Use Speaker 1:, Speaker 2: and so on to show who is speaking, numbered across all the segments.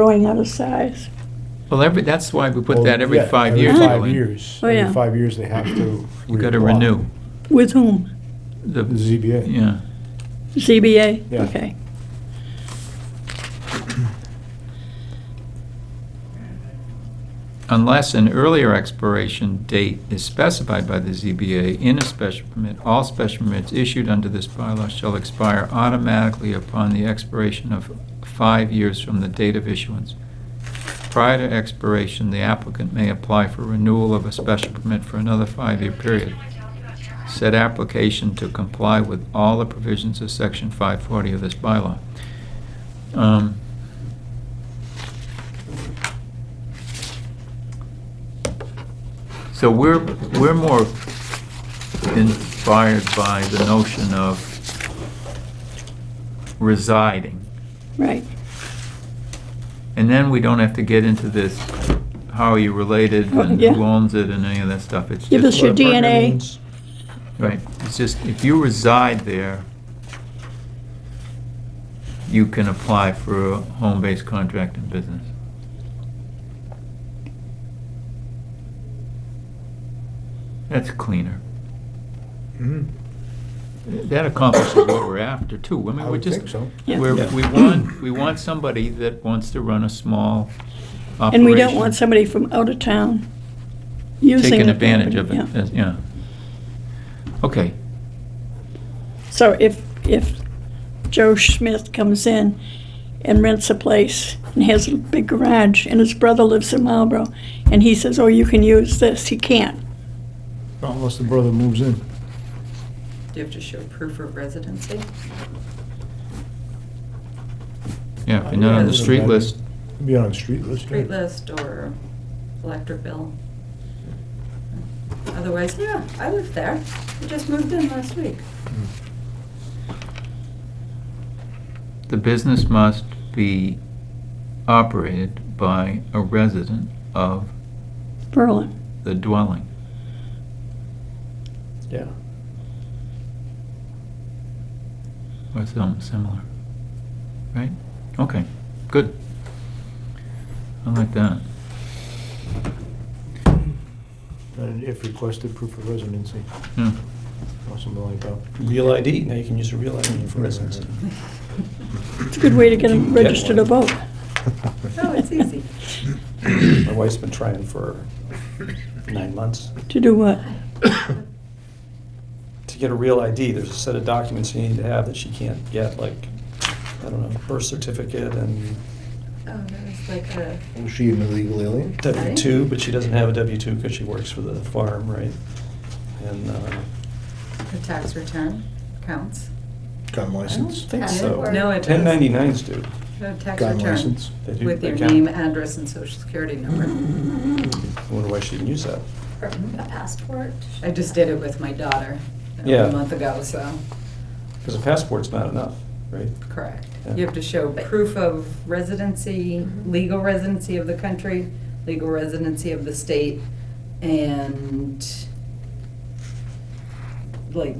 Speaker 1: growing out of size.
Speaker 2: Well, every, that's why we put
Speaker 3: Well,
Speaker 2: that every
Speaker 3: yeah,
Speaker 2: five years,
Speaker 3: Every five
Speaker 2: Ellen.
Speaker 3: years.
Speaker 1: Oh, yeah.
Speaker 3: Every five years, they have to.
Speaker 2: You gotta
Speaker 3: reapply.
Speaker 2: renew.
Speaker 1: With whom?
Speaker 2: The
Speaker 3: The ZBA.
Speaker 2: Yeah.
Speaker 1: ZBA?
Speaker 3: Yeah.
Speaker 1: Okay.
Speaker 2: Unless an earlier expiration date is specified by the ZBA in a special permit, all special permits issued under this bylaw shall expire automatically upon the expiration of five years from the date of issuance. Prior to expiration, the applicant may apply for renewal of a special permit for another five-year period. Said application to comply with all the provisions of section 540 of this bylaw. Um, So we're, we're more inspired by the notion of residing.
Speaker 1: Right.
Speaker 2: And then we don't have to get into this, how are you related and
Speaker 1: Yeah.
Speaker 2: who owns it and any of that stuff. It's
Speaker 1: Give us
Speaker 2: just,
Speaker 1: your
Speaker 3: Partner
Speaker 1: DNA.
Speaker 3: means-
Speaker 2: right, it's just, if you reside there, you can apply for a home-based contract and business. That's cleaner.
Speaker 4: Mm-hmm.
Speaker 3: Mhm.
Speaker 2: That accomplishes what we're after too. I mean,
Speaker 3: I
Speaker 2: we're
Speaker 3: would
Speaker 2: just.
Speaker 3: think so.
Speaker 1: Yeah.
Speaker 2: We're,
Speaker 3: Yeah.
Speaker 2: we want, we want somebody that wants to run a small operation.
Speaker 1: And we don't want somebody from out of town using.
Speaker 2: Taking
Speaker 1: the
Speaker 2: advantage of it,
Speaker 1: property, yeah.
Speaker 2: as- yeah. Okay,
Speaker 1: So if, if Joe Smith comes in and rents a place and has a big garage and his brother lives in Marlboro and he says, oh, you can use this, he can't.
Speaker 3: Not Unless the brother moves in.
Speaker 5: Do you have to show proof of residency?
Speaker 2: yeah, if you're not on the street list,
Speaker 3: Be on the street list. yeah.
Speaker 5: Street list or electric bill? Otherwise, yeah, I live there. I just moved in last week.
Speaker 3: Mm.
Speaker 2: the business must be operated by a resident of
Speaker 1: Berlin.
Speaker 2: the dwelling.
Speaker 4: Yeah.
Speaker 2: or something similar, right? Okay, good. I like that.
Speaker 3: And if requested, proof of residency
Speaker 2: Yeah.
Speaker 3: or something like that.
Speaker 4: Real ID, now you can use a real ID for residency.
Speaker 1: It's a good way to get
Speaker 4: You
Speaker 1: him
Speaker 4: can get
Speaker 1: registered to
Speaker 4: one.
Speaker 1: vote.
Speaker 5: Oh, it's easy.
Speaker 4: My wife's been trying for nine months.
Speaker 1: To do what?
Speaker 4: To get a real ID, there's a set of documents you need to have that she can't get, like, I don't know, birth certificate and
Speaker 5: Oh, there's like a,
Speaker 6: Was she an illegal alien?
Speaker 4: W-2, but she doesn't have a W-2 because she works for the farm, right? And uh,
Speaker 5: a tax return counts.
Speaker 6: Gun
Speaker 4: I don't
Speaker 6: license?
Speaker 4: think
Speaker 5: Yeah,
Speaker 4: so.
Speaker 5: it No, it does.
Speaker 4: 1099s do.
Speaker 5: No tax
Speaker 6: Gun
Speaker 5: return
Speaker 6: license?
Speaker 4: They do-
Speaker 5: with
Speaker 4: they
Speaker 5: your
Speaker 4: count.
Speaker 5: name, address, and social security number.
Speaker 4: I wonder why she didn't use that.
Speaker 7: A passport?
Speaker 5: I just did it with my daughter
Speaker 4: Yeah.
Speaker 5: a month ago, so,
Speaker 4: Because a passport's not enough, right?
Speaker 5: correct.
Speaker 4: Yeah.
Speaker 5: You have to show proof of residency, legal residency of the country, legal residency of the state, and like,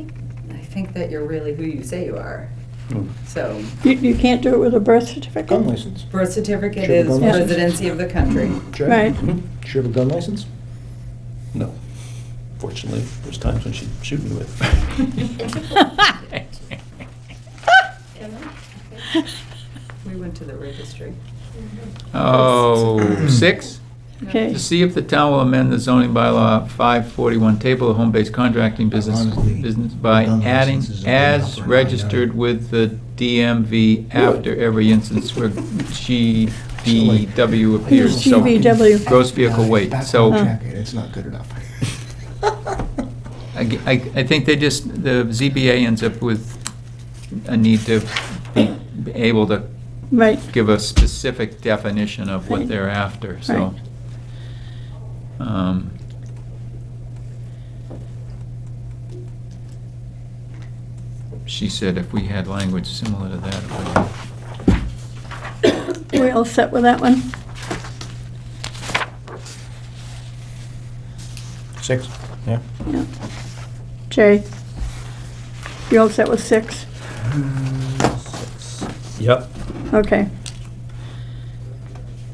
Speaker 5: I think that you're really who you say you are.
Speaker 4: Hmm.
Speaker 5: So
Speaker 1: You, you can't do it with a birth certificate?
Speaker 6: Gun license?
Speaker 5: birth certificate
Speaker 3: Should have
Speaker 5: is
Speaker 3: gone
Speaker 1: with-
Speaker 5: residency of the country.
Speaker 6: Check.
Speaker 1: Right.
Speaker 6: She have a gun license?
Speaker 4: No. Fortunately, there's times when she'd shoot me with.
Speaker 5: We went to the registry.
Speaker 2: Oh, six?
Speaker 1: Okay.
Speaker 2: To see if the town will amend the zoning bylaw five forty-one table of home-based contracting business,
Speaker 6: Honestly,
Speaker 2: business by
Speaker 6: gun
Speaker 2: adding
Speaker 6: licenses are going up
Speaker 2: as
Speaker 6: right now.
Speaker 2: registered with the DMV after every instance where GVW appears. So
Speaker 1: GVW.
Speaker 2: Gross vehicle weight, so.
Speaker 1: Huh.
Speaker 6: Check it, it's not good enough.
Speaker 2: I, I I think they just, the ZBA ends up with a need to be able to
Speaker 1: Right.
Speaker 2: give a specific definition of what they're after, so. Um, She said if we had language similar to that, it would
Speaker 1: We're all set with that one?
Speaker 3: Six, yeah.
Speaker 1: Yeah. Jay? You all set with six?
Speaker 4: Yep.
Speaker 1: Okay.